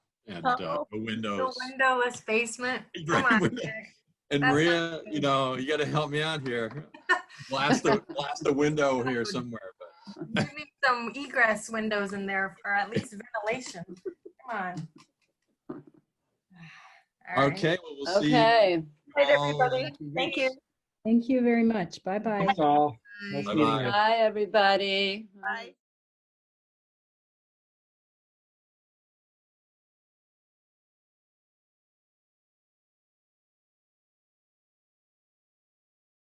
and uh, Uh-oh. no The windows. windowless basement. Oh, Come Right, on, window- Dick. And That's Maria, not you know, you got to help me out here. Blast a, blast a window here somewhere. But You need some egress windows in there, or at least ventilation. Come on. All right. okay, well, we'll see. Okay. Good, all- everybody. Thank you. Thank you very much. Bye-bye. Thanks all. Bye. Nice Bye-bye. meeting you. Bye, everybody. Bye.